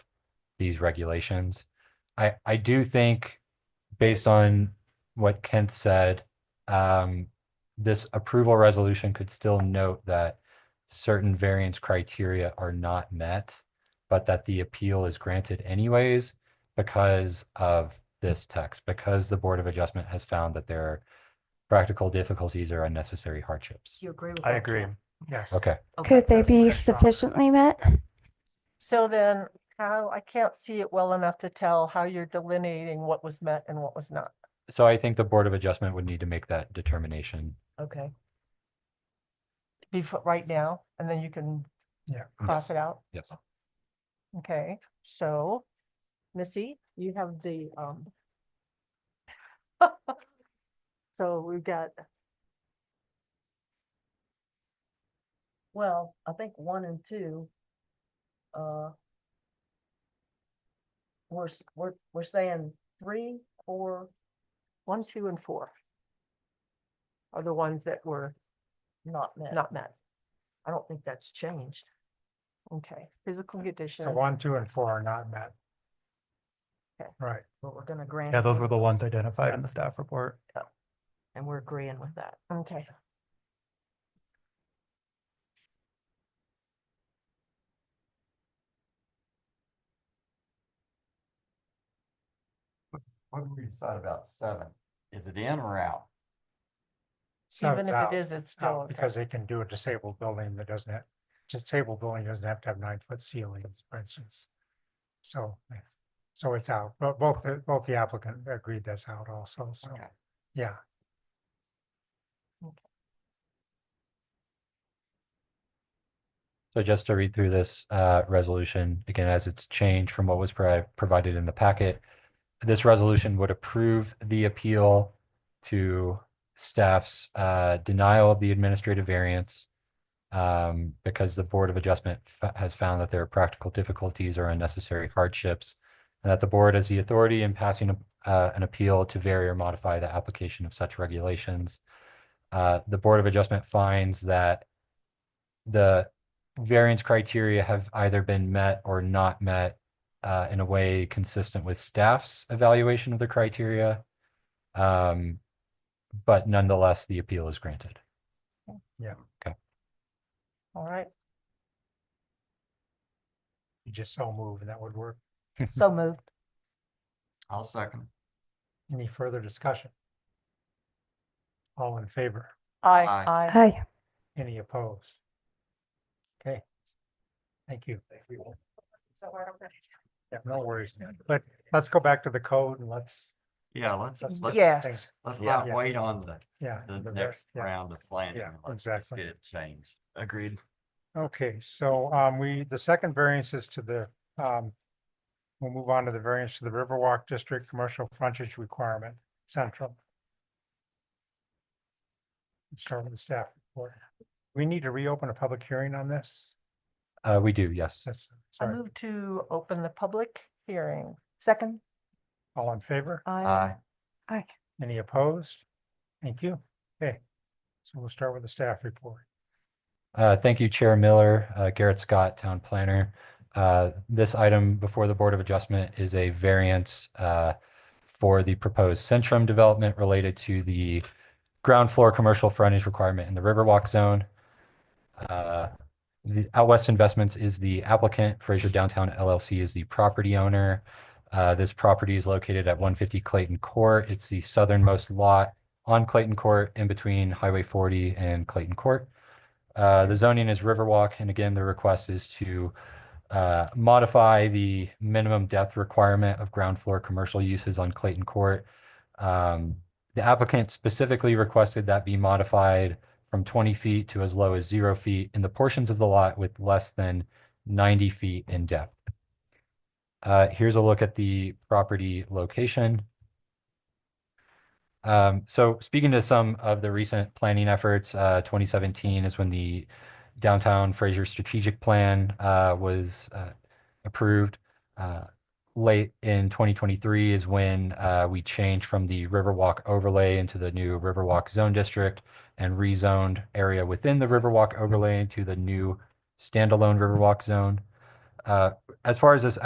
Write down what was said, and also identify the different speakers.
Speaker 1: these regulations. I, I do think, based on what Kent said, um, this approval resolution could still note that certain variance criteria are not met, but that the appeal is granted anyways because of this text, because the Board of Adjustment has found that there are practical difficulties or unnecessary hardships.
Speaker 2: You agree with
Speaker 3: I
Speaker 2: that?
Speaker 3: agree.
Speaker 2: Jen?
Speaker 3: Yes.
Speaker 1: Okay,
Speaker 2: Okay,
Speaker 4: Could they
Speaker 3: that's what I
Speaker 4: be
Speaker 3: thought.
Speaker 4: sufficiently met?
Speaker 2: so then how, I can't see it well enough to tell how you're delineating what was met and what was not.
Speaker 1: so I think the Board of Adjustment would need to make that determination.
Speaker 2: Okay. Before, right now, and then you can
Speaker 3: Yeah.
Speaker 2: cross it out.
Speaker 1: Yes.
Speaker 2: Okay, so Missy, you have the, um. So we've got. Well, I think one and two. Uh. We're, s- we're, we're saying three, four, one, two, and four. Are the ones that were. Not met. Not met. I don't think that's changed. Okay, physical condition.
Speaker 3: So one, two, and four are not met.
Speaker 2: Okay.
Speaker 3: Right.
Speaker 5: But we're gonna grant.
Speaker 6: Yeah,
Speaker 5: it,
Speaker 6: those were the ones identified in the staff report.
Speaker 5: And we're agreeing with that.
Speaker 2: Okay.
Speaker 7: What did we decide about seven? Is it in or out?
Speaker 3: So
Speaker 2: Even
Speaker 3: it's
Speaker 2: if
Speaker 3: out,
Speaker 2: it is, it's still.
Speaker 3: out,
Speaker 2: okay.
Speaker 3: because they can do a disabled building that doesn't have, disabled building doesn't have to have nine foot ceilings, for instance. So, yeah. so it's out, but both, the- both the applicant agreed that's out also, so,
Speaker 7: Okay.
Speaker 3: yeah.
Speaker 1: So just to read through this uh, resolution, again, as it's changed from what was provi- provided in the packet, this resolution would approve the appeal to staff's uh, denial of the administrative variance um, because the Board of Adjustment fa- has found that there are practical difficulties or unnecessary hardships, and that the board has the authority in passing a- uh, an appeal to vary or modify the application of such regulations. Uh, The Board of Adjustment finds that the variance criteria have either been met or not met uh, in a way consistent with staff's evaluation of the criteria. Um, but nonetheless, the appeal is granted.
Speaker 2: All right,
Speaker 3: You just so move and that would work.
Speaker 2: so moved.
Speaker 7: I'll second.
Speaker 3: Any further discussion? All in favor?
Speaker 2: Aye,
Speaker 7: Aye.
Speaker 2: aye.
Speaker 4: Hi,
Speaker 3: Any opposed? Okay. Thank you. Yeah, no worries, man. But let's go back to the code and let's.
Speaker 7: Yeah, let's,
Speaker 2: Mm,
Speaker 3: let's-
Speaker 7: let's,
Speaker 2: Yes.
Speaker 3: things-
Speaker 7: let's
Speaker 3: Yeah.
Speaker 7: not wait on the,
Speaker 3: Yeah.
Speaker 7: the
Speaker 3: the
Speaker 7: next
Speaker 3: rest, yeah.
Speaker 7: round of planning.
Speaker 3: Yeah,
Speaker 7: Let's just
Speaker 3: exactly.
Speaker 7: Get it changed. Agreed.
Speaker 3: Okay, so um, we, the second variance is to the, um, we'll move on to the variance to the Riverwalk District Commercial Frontage Requirement Central. Start with the staff report. We need to reopen a public hearing on this.
Speaker 1: Uh, we do, yes.
Speaker 3: That's,
Speaker 2: I
Speaker 3: sorry,
Speaker 2: move to open the public hearing. Second.
Speaker 3: all in favor?
Speaker 7: Aye.
Speaker 3: Any opposed? Thank you. Okay. So we'll start with the staff report.
Speaker 1: Uh, Thank you, Chair Miller, uh, Garrett Scott, Town Planner. Uh, This item before the Board of Adjustment is a variance uh, for the proposed Centrum development related to the ground floor commercial frontage requirement in the Riverwalk Zone. Uh, the- Out West Investments is the applicant, Fraser Downtown LLC is the property owner. Uh, This property is located at 150 Clayton Court. It's the southernmost lot on Clayton Court in between Highway 40 and Clayton Court. Uh, the zoning is Riverwalk, and again, the request is to uh, modify the minimum depth requirement of ground floor commercial uses on Clayton Court. Um, the applicant specifically requested that be modified from twenty feet to as low as zero feet in the portions of the lot with less than ninety feet in depth. Uh, here's a look at the property location. Um, so speaking to some of the recent planning efforts, uh, 2017 is when the downtown Fraser strategic plan, uh, was, uh, approved. Uh, late in 2023 is when, uh, we changed from the Riverwalk overlay into the new Riverwalk zone district and rezoned area within the Riverwalk overlay into the new standalone Riverwalk zone. Uh, as far as this